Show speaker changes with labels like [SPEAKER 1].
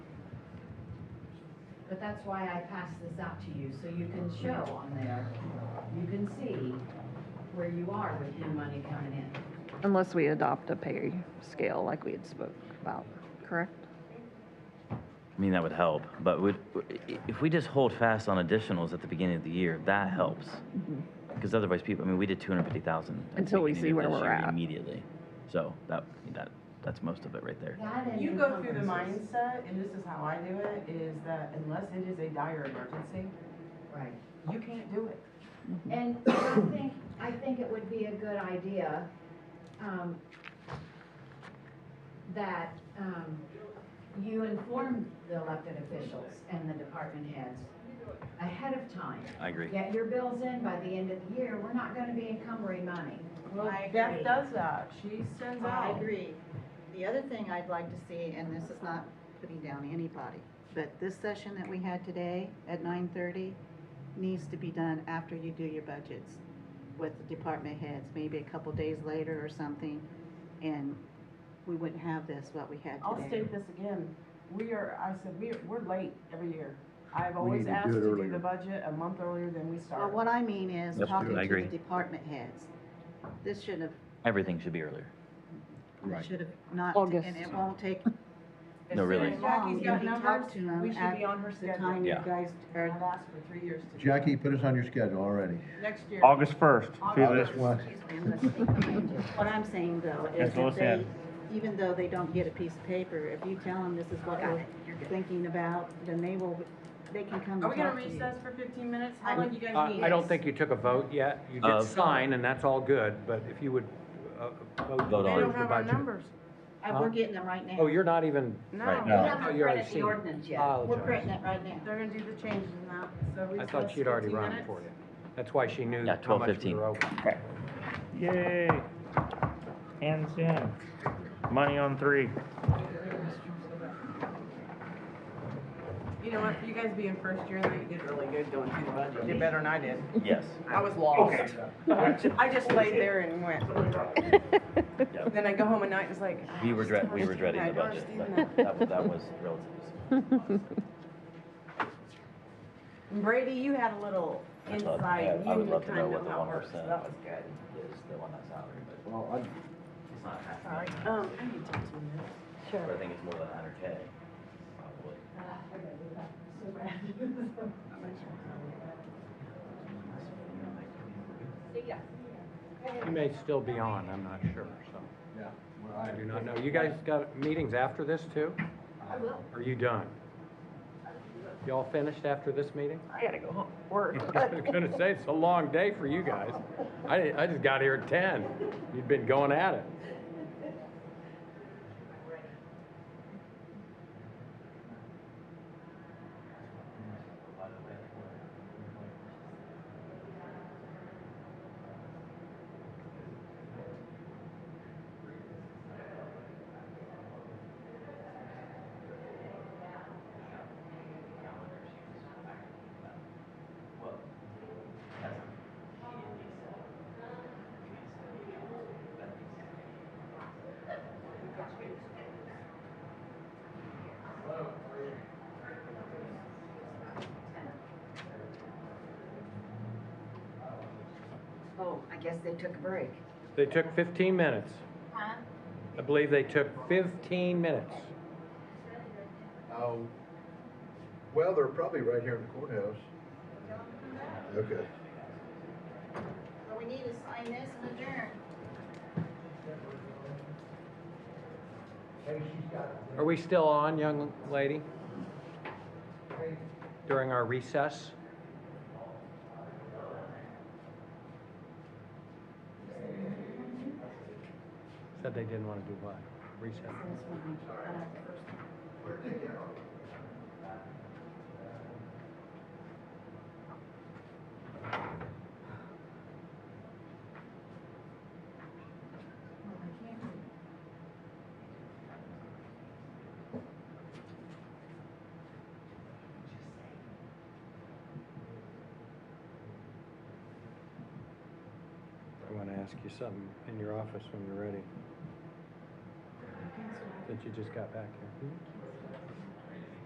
[SPEAKER 1] But that's why I passed this out to you, so you can show on there, you can see where you are with new money coming in.
[SPEAKER 2] Unless we adopt a pay scale like we had spoke about, correct?
[SPEAKER 3] I mean, that would help, but would, if we just hold fast on additionals at the beginning of the year, that helps. Because otherwise people, I mean, we did two hundred fifty thousand.
[SPEAKER 2] Until we see where we're at.
[SPEAKER 3] Immediately. So that, that, that's most of it right there.
[SPEAKER 1] That and
[SPEAKER 4] You go through the
[SPEAKER 1] encumbrances.
[SPEAKER 4] mindset, and this is how I do it, is that unless it is a dire emergency,
[SPEAKER 1] Right.
[SPEAKER 4] you can't do it.
[SPEAKER 1] And I think, I think it would be a good idea, um, that, um, you inform the elected officials and the department heads ahead of time.
[SPEAKER 3] I agree.
[SPEAKER 1] Get your bills in by the end of the year, we're not gonna be encumbering money.
[SPEAKER 5] I
[SPEAKER 4] Beth
[SPEAKER 5] agree.
[SPEAKER 4] does that, she sends
[SPEAKER 5] I
[SPEAKER 4] out.
[SPEAKER 5] agree. The other thing I'd like to see, and this is not putting down anybody, but this session that we had today at nine thirty needs to be done after you do your budgets with the department heads, maybe a couple days later or something. And we wouldn't have this, what we had
[SPEAKER 4] I'll
[SPEAKER 5] today.
[SPEAKER 4] state this again, we are, I said, we, we're late every year. I've
[SPEAKER 6] We
[SPEAKER 4] always
[SPEAKER 6] need to do
[SPEAKER 4] asked
[SPEAKER 6] it
[SPEAKER 4] to do
[SPEAKER 6] earlier.
[SPEAKER 4] the budget a month earlier than we
[SPEAKER 5] Well,
[SPEAKER 4] start.
[SPEAKER 5] what I mean is
[SPEAKER 3] Yep,
[SPEAKER 5] talking
[SPEAKER 3] I
[SPEAKER 5] to
[SPEAKER 3] agree.
[SPEAKER 5] the department heads. This should have,
[SPEAKER 3] Everything should be earlier.
[SPEAKER 6] Right.
[SPEAKER 5] should have not,
[SPEAKER 2] August.
[SPEAKER 5] and it won't take
[SPEAKER 4] As
[SPEAKER 3] No,
[SPEAKER 4] soon
[SPEAKER 3] really.
[SPEAKER 4] as
[SPEAKER 5] long
[SPEAKER 4] Jackie's
[SPEAKER 5] if you
[SPEAKER 4] got
[SPEAKER 5] talk
[SPEAKER 4] numbers,
[SPEAKER 5] to them
[SPEAKER 4] we should be on her
[SPEAKER 5] at the time
[SPEAKER 4] schedule.
[SPEAKER 5] you
[SPEAKER 3] Yeah.
[SPEAKER 5] guys
[SPEAKER 4] I've
[SPEAKER 5] are
[SPEAKER 4] asked for three years to do that.
[SPEAKER 6] Jackie, put us on your schedule already.
[SPEAKER 4] Next year.
[SPEAKER 7] August 1st. See you
[SPEAKER 6] August
[SPEAKER 7] later.
[SPEAKER 6] one.
[SPEAKER 5] What I'm saying though is
[SPEAKER 7] That's what
[SPEAKER 5] that
[SPEAKER 7] I
[SPEAKER 5] they,
[SPEAKER 7] said.
[SPEAKER 5] even though they don't get a piece of paper, if you tell them this is what we're thinking about, then they will, they can come and
[SPEAKER 4] Are we gonna
[SPEAKER 5] talk to you.
[SPEAKER 4] recess for fifteen minutes? How long do you
[SPEAKER 3] Uh,
[SPEAKER 4] guys need?
[SPEAKER 7] Uh, I I don't think you took a vote yet. You did
[SPEAKER 3] Of-
[SPEAKER 7] sign, and that's all good, but if you would uh, vote to
[SPEAKER 3] Vote on it.
[SPEAKER 4] They don't
[SPEAKER 7] approve the
[SPEAKER 4] have our
[SPEAKER 7] budget.
[SPEAKER 4] numbers.
[SPEAKER 5] Uh, We're getting them right now.
[SPEAKER 7] Oh, you're not even,
[SPEAKER 3] Right. No.
[SPEAKER 4] No,
[SPEAKER 1] We
[SPEAKER 7] oh,
[SPEAKER 1] haven't
[SPEAKER 7] you already
[SPEAKER 1] printed the
[SPEAKER 7] seen. it.
[SPEAKER 1] ordinance yet.
[SPEAKER 5] We're
[SPEAKER 7] Apologize.
[SPEAKER 5] printing it right now.
[SPEAKER 4] they're gonna do the changes now, so
[SPEAKER 7] I
[SPEAKER 4] recess
[SPEAKER 7] thought she'd already
[SPEAKER 4] 15
[SPEAKER 7] run it
[SPEAKER 4] minutes.
[SPEAKER 7] for you. That's why she knew
[SPEAKER 3] Yeah,
[SPEAKER 7] how much
[SPEAKER 3] 12:15.
[SPEAKER 7] we were open.
[SPEAKER 8] Yay. Hands in. Money on three.
[SPEAKER 4] You know what, you guys being first year, though, you did really good going through the budget. Did better than I did.
[SPEAKER 3] Yes.
[SPEAKER 4] I was lost. I just laid there and went. Then I go home at night, it's like. ah,
[SPEAKER 3] We were
[SPEAKER 4] it's Oh,
[SPEAKER 3] dread, we were
[SPEAKER 4] first year,
[SPEAKER 3] dreading
[SPEAKER 4] I
[SPEAKER 3] the
[SPEAKER 4] don't
[SPEAKER 3] budget.
[SPEAKER 4] understand
[SPEAKER 3] but That was, that was relative.
[SPEAKER 4] that. Brady, you had a little
[SPEAKER 3] I thought- I- I
[SPEAKER 4] insight, you
[SPEAKER 3] would love to
[SPEAKER 4] kind
[SPEAKER 3] know
[SPEAKER 4] of know
[SPEAKER 3] what the
[SPEAKER 4] how it works, so
[SPEAKER 3] 1%
[SPEAKER 4] that was good.
[SPEAKER 3] Is the one that's salary, but
[SPEAKER 6] Well, I'd
[SPEAKER 3] it's not half.
[SPEAKER 4] All right, um, I need to take two minutes.
[SPEAKER 3] But I think it's more than a hundred K, probably.
[SPEAKER 7] You may still be on, I'm not sure, so.
[SPEAKER 6] Yeah. well,
[SPEAKER 7] I do not know. You guys got meetings after this, too?
[SPEAKER 1] I will.
[SPEAKER 7] Are you done? Y'all finished after this meeting?
[SPEAKER 4] I gotta go home, work.
[SPEAKER 7] I was gonna say, it's a long day for you guys. I, didn't- I just got here at ten. You've been going at it.
[SPEAKER 1] Oh, I guess they took a break.
[SPEAKER 7] They took fifteen minutes. I believe they took fifteen minutes.
[SPEAKER 6] Oh, Well, they're probably right here in the courthouse. Okay.
[SPEAKER 5] Well, we need to sign this and adjourn.
[SPEAKER 7] Are we still on, young lady? During our recess? Said they didn't wanna do what? Recess? I want to ask you something in your office when you're ready. Since you just got back here.